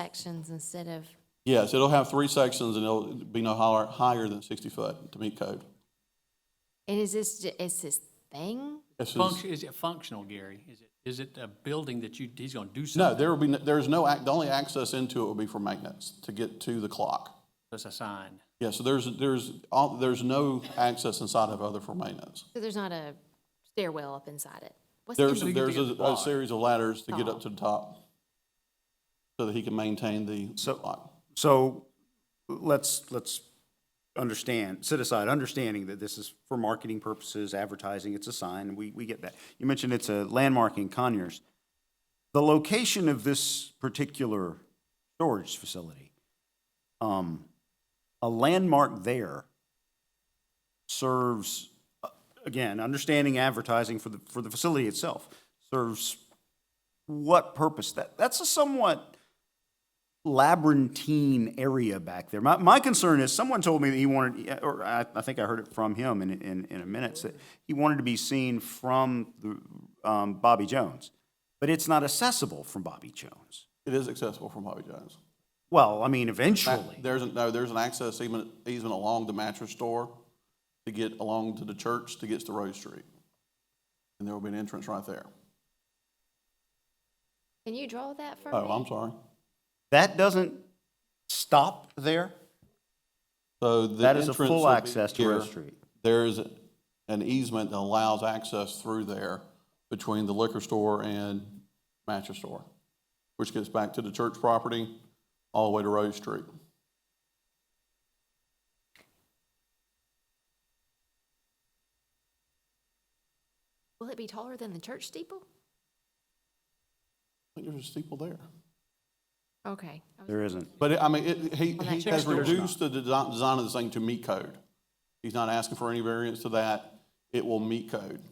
sections instead of, Yes, it'll have three sections and it'll be no higher, higher than 60 foot to meet code. and is this, ju- is this thing? This is- Function, is it functional, Gary? Is it, is it a building that you, he's gonna do No, something? there will be, no- there is no, ac- the only access into it will be for maintenance to get to the clock. That's a sign. Yeah, so there's, there's, all- there's no access inside of other for maintenance. So there's not a stairwell up inside it? What's in There's, the- there's get a, the a clock. series of ladders to get up to the top so that he can maintain the So- clock. So let's, let's understand, set aside, understanding that this is for marketing purposes, advertising, it's a sign, we, we get that. You mentioned it's a landmark in Conyers. The location of this particular storage facility, um, a landmark there serves, uh, again, understanding advertising for the, for the facility itself, serves what purpose? That, that's a somewhat labyrinthine area back there. My, my concern is, someone told me that he wanted, or I, I think I heard it from him in, in, in a minute, that he wanted to be seen from the, um, Bobby Jones, but it's not accessible from Bobby Jones. It is accessible from Bobby Jones. Well, I mean, Ma- eventually, There's, a- no, there's an access easement, easement along the mattress store to get along to the church to get to Rose Street. And there will be an entrance right there. Can you draw that for me? Oh, I'm sorry. that doesn't stop there. So the That is a entrance full will be access to here. Rose Street. There is an easement that allows access through there between the liquor store and mattress store, which gets back to the church property all the way to Rose Street. Will it be taller than the church steeple? I think there's a steeple there. Okay. I was- There isn't. But it- I mean, it, he, Well, he that has church- reduced the design, design of this thing to meet code. He's not asking for any variance to that. It will meet code.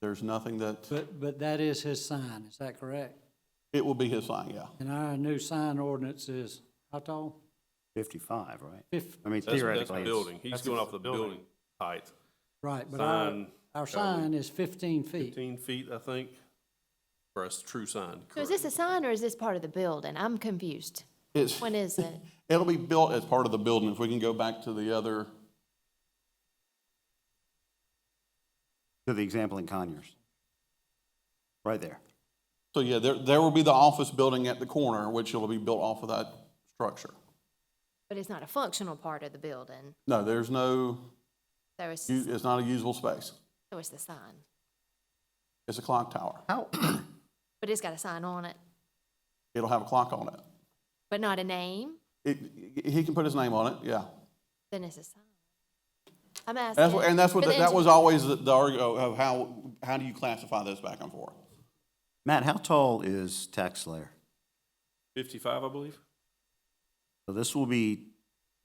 There's nothing that, But, but that is his sign, is that correct? it will be his sign, yeah. And our new sign ordinance is how tall? 55, right? Fif, I mean, That's, theoretically. that's the it's- building. He's going off the building height, right, but our, Sign, our sign is fifteen feet. fifteen feet, I think, for a s- true sign. So is correct. this a sign or is this part of the building? I'm confused. It's, When is it? it'll be built as part of the building. If we can go back to the other, To the example in Conyers. Right there. so yeah, there, there will be the office building at the corner, which will be built off of that structure. But it's not a functional part of the building, No, there's no, so it's, u- so it's not a usable space. it's the sign. It's a clock tower. How, But it's got a sign on it, It'll have a clock on it. but not a name, It, he can put his name on it, yeah. then it's a sign. I'm asking. That's what, and that's what, for the that was engineer. always the, the argument of how, how do you classify this back and forth? Matt, how tall is tax layer? Fifty-five, I believe. So this will be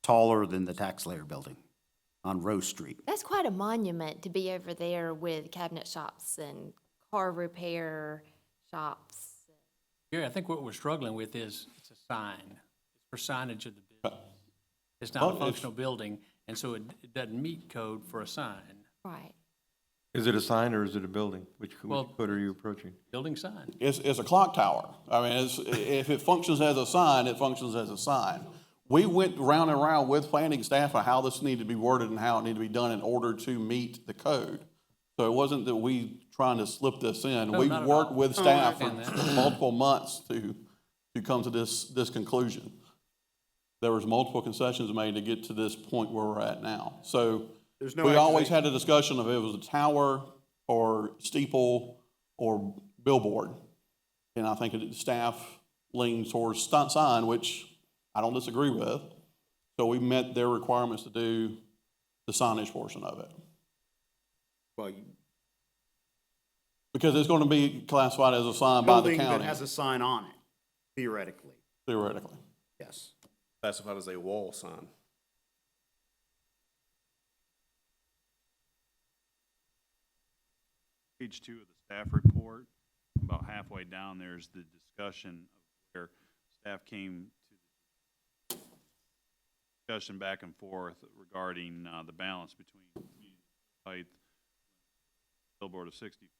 taller than the tax layer building on Rose Street. That's quite a monument to be over there with cabinet shops and car repair shops. Gary, I think what we're struggling with is, it's a sign, for signage of the building. It's Well, not a it's- functional building, and so it, it doesn't meet code for a sign, Right. Is it a sign or is it a building? Which, Well- which code are you approaching? building sign. It's, it's a clock tower. I mean, it's, if it functions as a sign, it functions as a sign. We went round and round with planning staff on how this needed to be worded and how it needed to be done in order to meet the code. So it wasn't that we trying to slip this in. No, We not at worked all. with Oh, I staff for understand that. multiple months to, to come to this, this conclusion. There was multiple concessions made to get to this point where we're at now. So There's no we always accusation. had a discussion of it was a tower or steeple or billboard. And I think the staff leaned towards stunt sign, which I don't disagree with. So we met their requirements to do the signage portion of it. Well, Because it's going to be classified as a sign by the Building that county has a sign on it, theoretically, theoretically. yes. Classified as a wall sign. page two of the staff report, about halfway down, there's the discussion of where staff came to the discussion back and forth regarding, uh, the balance between community height, billboard of sixty feet.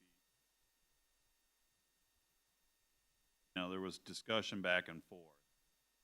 Now, there was discussion back and forth.